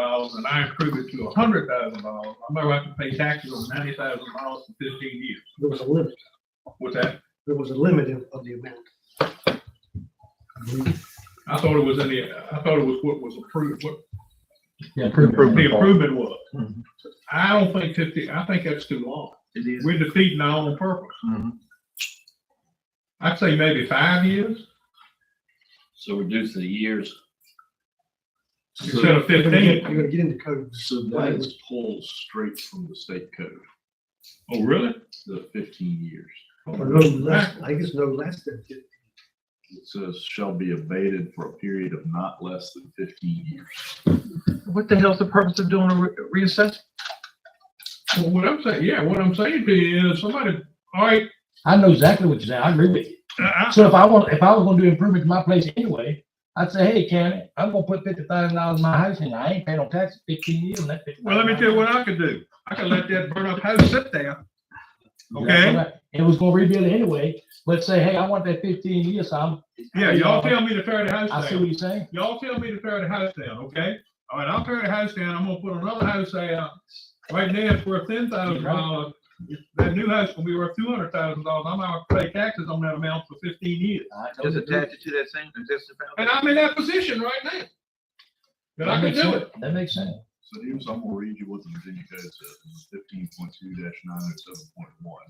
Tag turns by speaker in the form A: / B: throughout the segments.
A: dollars and I improve it to a hundred thousand dollars, I'm gonna have to pay taxes on ninety thousand dollars for fifteen years.
B: There was a limit,
A: What's that?
B: there was a limit of, of the amount. I believe.
A: I thought it was in the, I thought it was what was approved, what
C: Yeah,
A: the improvement was.
C: Mhm.
A: I don't think fifty, I think that's too long.
C: It is.
A: We're defeating our own purpose. I'd say maybe five years
D: So reduce the years.
A: instead of
B: You're gonna get,
A: fifteen.
B: you're gonna get into codes.
D: So that is pulled straight from the state code,
A: Oh, really?
D: the fifteen years.
B: Or no less, I guess no less than fifty.
D: It says shall be abated for a period of not less than fifteen years.
C: What the hell's the purpose of doing a re- reassessment?
A: Well, what I'm saying, yeah, what I'm saying to you is somebody, all right,
E: I know exactly what you're saying. I agree with you.
A: I,
E: So if I want, if I was gonna do improvement to my place anyway, I'd say, hey, Karen, I'm gonna put fifty thousand dollars in my house and I ain't paying no taxes fifteen years on that.
A: Well, let me tell you what I could do. I could let that burnt up house sit there. Okay,
E: It was gonna rebuild it anyway. Let's say, hey, I want that fifteen years, so I'm.
A: yeah, y'all tell me to tear the house
E: I see what
A: down.
E: you're saying.
A: Y'all tell me to tear the house down, okay? All right, I'll tear the house down. I'm gonna put another house out. Right now, it's worth ten thousand dollars. That new house will be worth two hundred thousand dollars. I'm gonna pay taxes on that amount for fifteen years.
E: I
C: Just
E: totally
C: attach it to that same, that's the
A: And
C: foundation.
A: I'm in that position right now.
E: agree.
A: That I could
E: makes
A: do
E: sense.
A: it.
E: That makes sense.
D: So here's, I'm gonna read you what the Virginia Code says, fifteen point two nine oh seven point one.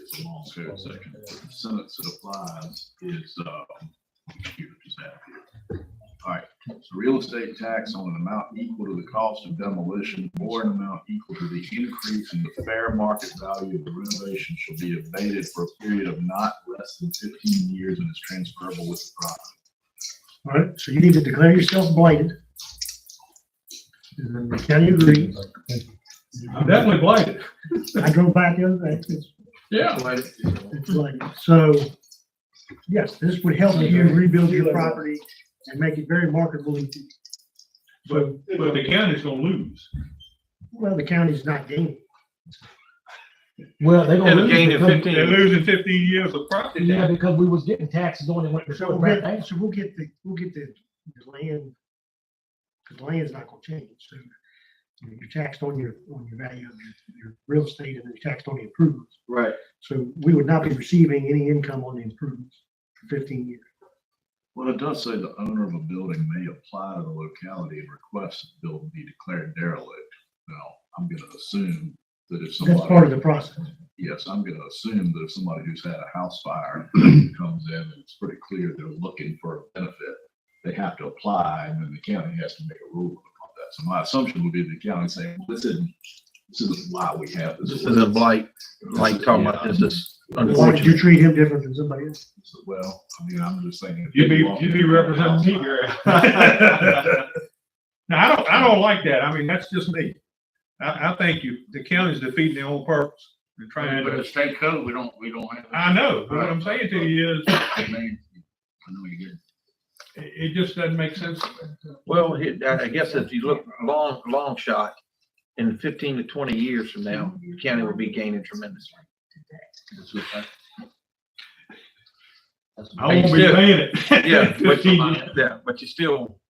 D: It's a long code section. The sentence that applies is, um, here, just have here. All right, so real estate tax on an amount equal to the cost of demolition or an amount equal to the increase in the fair market value of the renovation shall be abated for a period of not less than fifteen years and is transferable with the property.
B: All right, so you need to declare yourself blighted. And then the county agrees.
A: I'm definitely blighted.
B: I drove by the other day, uh, it's,
A: Yeah.
B: it's blighted. So, yes, this would help you rebuild your property and make it very marketable. So,
A: But the county's gonna lose.
B: well, the county's not gaining.
E: Well, they gonna
C: They'll
E: lose
C: gain
E: it
C: it
E: because,
C: 15.
A: They're losing fifteen years of property.
E: yeah, because we was getting taxes on it when it
B: So we'll get,
E: back down.
B: so we'll get the, we'll get the the land, because land's not gonna change, so you know, you're taxed on your, on your value of your- your real estate and you're taxed on the improvements.
C: Right.
B: So we would not be receiving any income on the improvements for fifteen years.
D: Well, it does say the owner of a building may apply to the locality and request the building be declared derelict. Now, I'm gonna assume that if
B: That's part of
D: somebody,
B: the process.
D: yes, I'm gonna assume that if somebody who's had a house fire comes in and it's pretty clear they're looking for a benefit, they have to apply and then the county has to make a rule about that. So my assumption would be the county saying, "Well, this isn't, this isn't why we have this.
C: This is a blight,
D: This
C: like
D: is-
C: talking about
D: yeah.
C: this is
B: Why would you
C: unfortunate.
B: treat him different than somebody else?
D: So, Well, I mean, I'm just saying. if
A: You'd be,
D: they walk
A: you'd
D: in
A: be
D: with a house
A: representing me,
D: fire-
A: Gary. No, I don't, I don't like that. I mean, that's just me. I, I think you, the county's defeating their own purpose. They're trying
F: But the
A: to,
F: state code, we don't, we don't have.
A: I know, but what I'm saying to you is,
F: I mean, I know you did.
A: it, it just doesn't make sense. to me.
C: Well, it- I I guess if you look long, long shot, in fifteen to twenty years from now, the county will be gaining tremendously.
A: I won't be paying it.
C: Yeah, but you,
A: I
C: yeah, but you still,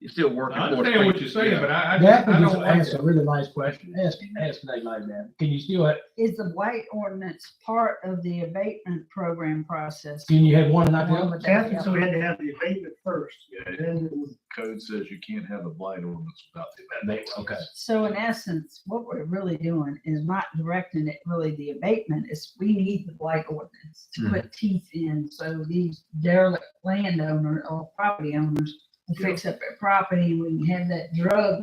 C: you still working. for the
A: understand what you're saying,
C: Yeah.
A: but I, I
E: That
A: just,
E: was
A: I
E: just
A: don't like
E: ask
A: that.
E: a really nice question. Ask, ask Nate like that. Can you still, have-
G: Is the blight ordinance part of the abatement program process?
E: can you have one and not the
G: Along
E: other?
G: with that, yeah.
B: so we had to have the abatement first,
D: Yeah,
B: and then it was
D: code says you can't have a blight ordinance without the abatement.
E: Okay.
G: So in essence, what we're really doing is not directing it really the abatement, it's we need the blight ordinance to
C: Mhm.
G: put teeth in, so these derelict landowner or property owners can fix up their property, and we can have that drug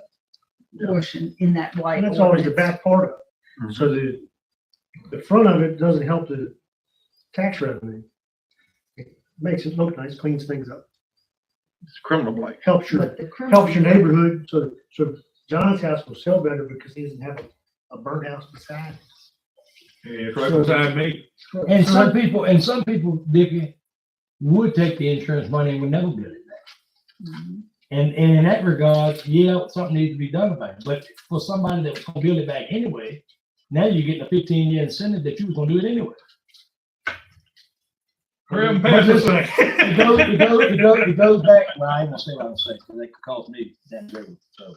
B: Yeah.
G: portion in that blight.
B: And that's always the
G: ordinance.
B: back part of
C: Mhm.
B: it. So the, the front of it doesn't help the tax revenue. It Makes it look nice, cleans things up,
C: It's criminal blight.
B: helps your,
G: But the criminal-
B: helps your neighborhood. So, so John's house will sell better because he doesn't have a, a burnt house beside.
A: Yeah, It's right beside me.
B: it.
E: And some people, and some people, Dickie, would take the insurance money and would never build it.
G: Mhm.
E: And, and in that regard, yeah, something needs to be done about it. But for somebody that was gonna build it back anyway, now you're getting a fifteen year incentive that you was gonna do it anyway.
A: Hurry up and pass this thing.
E: It goes, it goes, it goes, it goes back, well, I ain't gonna say what I'm saying, 'cause that could cause me that, so.